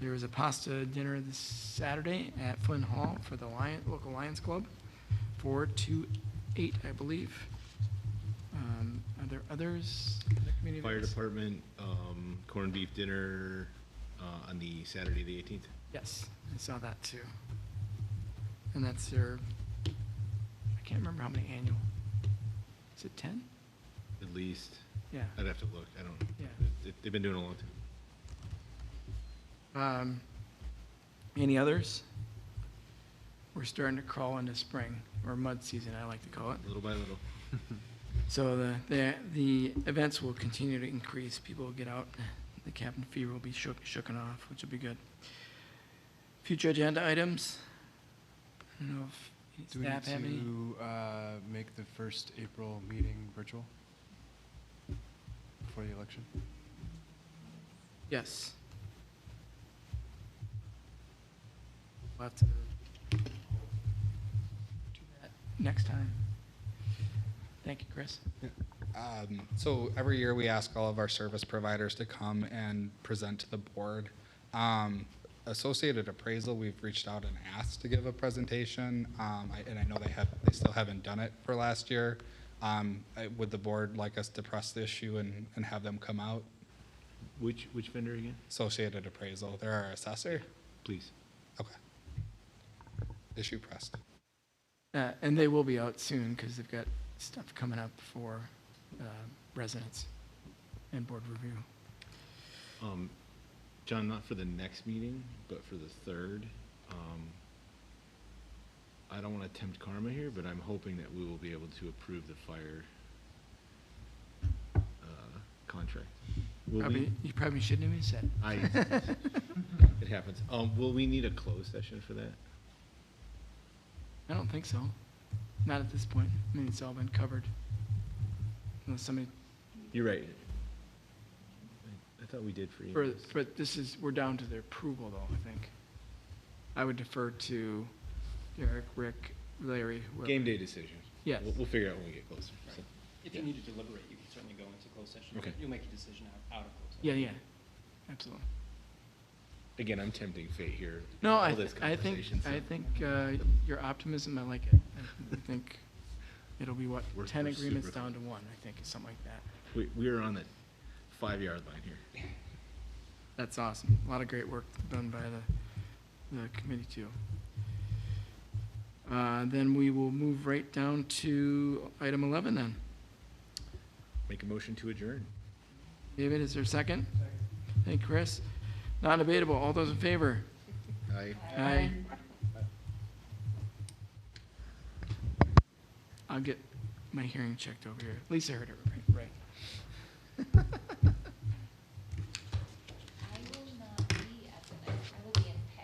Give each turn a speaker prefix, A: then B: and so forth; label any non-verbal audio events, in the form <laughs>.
A: There was a pasta dinner this Saturday at Flynn Hall for the Lion, local Lions Club, four to eight, I believe. Um, Are there others? other community
B: Fire
A: events?
B: department, um, corned beef dinner, uh, on the Saturday, the eighteenth.
A: Yes, I saw that too. And that's their, I can't remember how many annual. Is it 10?
B: At least,
A: Yeah.
B: I'd have to look, I don't,
A: Yeah.
B: they- they've been doing it a long time.
A: Um, Any others? We're starting to crawl into spring, or mud season, I like to call it.
B: little by little.
A: So the, the, the events will continue to increase, people will get out, the cabin fever will be shook, shooken off, which will be good. Future agenda items? I don't know if
C: Do we need
A: staff have any.
C: to uh, make the first April meeting virtual before the election?
A: Yes. We'll have to do that next time. Thank you, Chris.
D: Um, So every year, we ask all of our service providers to come and present to the board. Um, Associated Appraisal, we've reached out and asked to give a presentation, um, I- and I know they have, they still haven't done it for last year. Um, I- Would the board like us to press the issue and, and have them come out?
B: Which, which vendor again?
D: Associated Appraisal, they're our assessor?
B: Please.
D: Okay. Issue pressed.
A: Uh, And they will be out soon because they've got stuff coming up for uh, residents and board review.
B: Um, John, not for the next meeting, but for the third. Um, I don't want to tempt karma here, but I'm hoping that we will be able to approve the fire uh, contract. Will we?
A: Probably, you probably shouldn't have even said it.
B: I, it happens. Um, Will we need a closed session for that?
A: I don't think so. Not at this point. I mean, it's all been covered. Unless somebody,
B: You're right. I- I thought we did for you.
A: for- but this is, we're down to their approval though, I think. I would defer to Derek, Rick, Larry. whoever.
B: Game day decision.
A: Yes.
B: We'll, we'll figure out when we get closer. so.
E: If you need to deliberate, you can certainly go into closed session.
B: Okay.
E: You'll make a decision out- out of closed session.
A: Yeah, yeah, absolutely.
B: Again, I'm tempting fate here.
A: No,
B: all
A: I,
B: this
A: I think,
B: conversation, so
A: I think uh, your optimism, I like it. I think it'll be what,
B: We're-
A: 10
B: we're
A: agreements
B: super-
A: down to one, I think, or something like that.
B: We, we are on the five-yard line here.
A: That's awesome. A lot of great work done by the, the committee too. Uh, Then we will move right down to item 11 then.
B: Make a motion to adjourn.
A: David, is there a second? Thank you, Chris. Not debatable. All those in favor?
B: Aye.
A: Aye. I'll get my hearing checked over here. Lisa heard it right. <laughs> right.